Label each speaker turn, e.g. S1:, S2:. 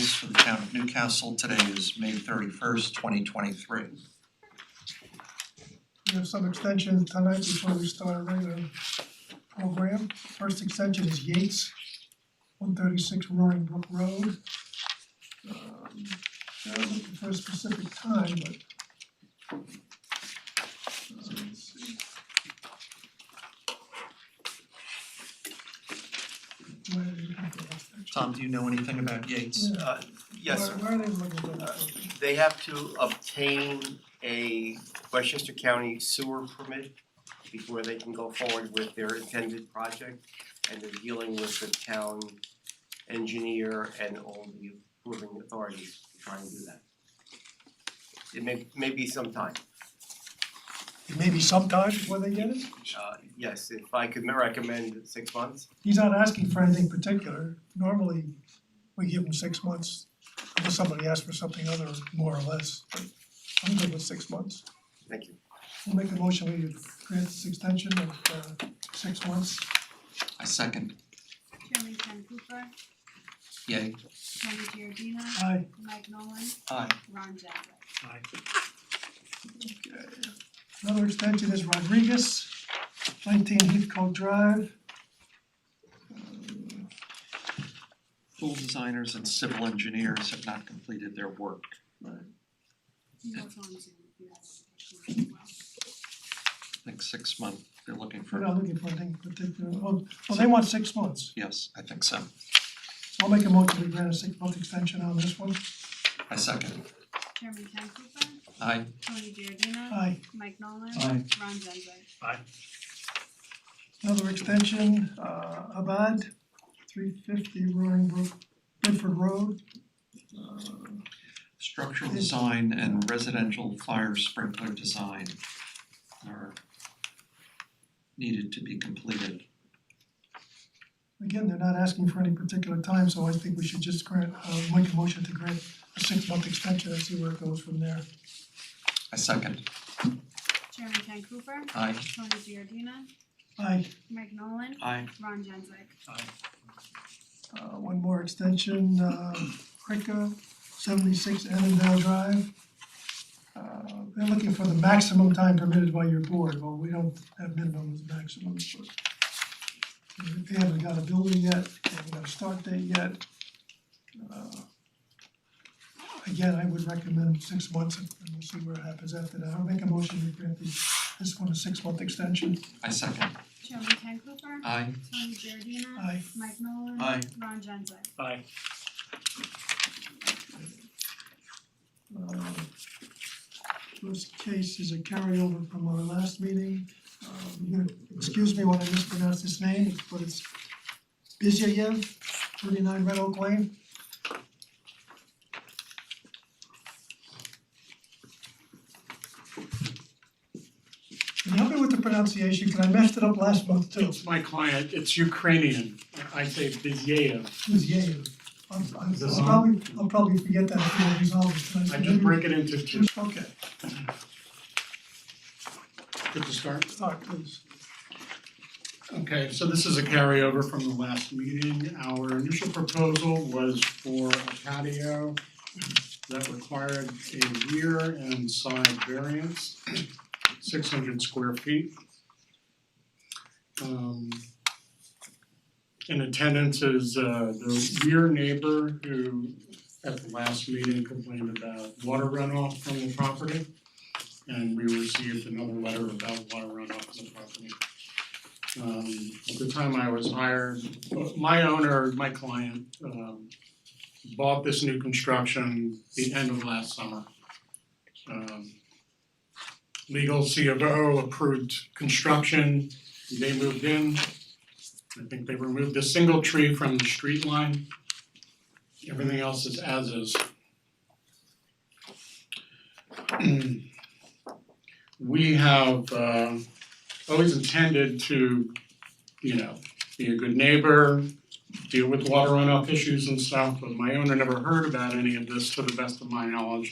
S1: for the town of Newcastle. Today is May thirty-first, twenty twenty-three.
S2: We have some extensions tonight before we start our regular program. First extension is Yates, one thirty-six Roaring Brook Road. Um, They're looking for a specific time, but. uh, let's see. Where are they looking for that extension?
S1: Tom, do you know anything about Yates?
S3: Uh, Yes, sir.
S2: Where where are they looking for that?
S3: Uh,
S2: extension?
S3: They have to obtain a Westchester County sewer permit before they can go forward with their intended project. And they're dealing with the town engineer and all the approving authorities to try and do that. It may, may be some time.
S2: Maybe sometime before they get it?
S3: Uh, Yes, if I could recommend six months,
S2: he's not asking for anything particular. Normally, we give him six months unless somebody asks for something other, more or less. But I'm good with six months.
S3: thank you.
S2: We'll make a motion, we grant this extension of uh six months.
S1: I second.
S4: Chairman Ken Cooper,
S1: Yay.
S4: Tony Giardina,
S2: Aye.
S4: Mike Nolan,
S1: Aye.
S4: Ron Zabat.
S2: Another extension is Rodriguez, nineteen Heathcote Drive.
S1: Pool designers and civil engineers have not completed their work.
S4: He's also on Zoom if you have any questions as well.
S1: I think six month, they're looking
S2: We're
S1: for,
S2: not looking for anything particular. Well, well, they want six months.
S1: yes, I think so.
S2: So I'll make a motion, we grant a six-month extension on this one.
S1: I second.
S4: Chairman Ken Cooper,
S1: Aye.
S4: Tony Giardina,
S2: Aye.
S4: Mike Nolan,
S1: Aye.
S4: Ron Zabat.
S2: Another extension, uh, Abad, three fifty Roaring Brook, Bedford Road. Uh,
S1: Structural design and residential fire sprinkler design are needed to be completed.
S2: Again, they're not asking for any particular time, so I think we should just grant, uh, make a motion to grant a six-month extension and see where it goes from there.
S1: I second.
S4: Chairman Ken Cooper,
S1: Aye.
S4: Tony Giardina,
S2: Aye,
S4: Mike Nolan,
S1: Aye.
S4: Ron Zabat.
S2: uh, one more extension, uh, Krika, seventy-six Annandale Drive. Uh, they're looking for the maximum time permitted by your board, well, we don't have minimums, maximums, but they haven't got a building yet, they haven't got a start date yet. Uh, Again, I would recommend six months and we'll see what happens after that. I'll make a motion to grant the, this one a six-month extension.
S1: I second.
S4: Chairman Ken Cooper,
S1: Aye.
S4: Tony Giardina,
S2: Aye.
S4: Mike Nolan,
S1: Aye.
S4: Ron Zabat.
S2: Uh, First case is a carryover from our last meeting. Uh, you're gonna Excuse me when I mispronounce his name, but it's Bizyev, thirty-nine Red Oak Lane. Can you help me with the pronunciation? Because I messed it up last month too.
S5: It's my client, it's Ukrainian, I say Bizyev.
S2: Bizyev. I'm, I'm,
S5: Is this
S2: I'll
S5: on?
S2: probably, I'll probably forget that if we don't resolve it tonight.
S5: I just break it into two,
S2: Okay,
S5: good to start.
S2: start please.
S5: Okay, so this is a carryover from the last meeting. Our initial proposal was for a patio that required a rear and side variance, six hundred square feet. Um, In attendance is uh the rear neighbor who at the last meeting complained about water runoff from the property. And we received another letter about water runoff from the property. Um at the time I was hired, my owner, my client, um bought this new construction the end of last summer. Um legal C of O approved construction, they moved in. I think they removed a single tree from the street line. Everything else is as is. We have uh always intended to, you know, be a good neighbor, deal with water runoff issues and stuff, but my owner never heard about any of this to the best of my knowledge.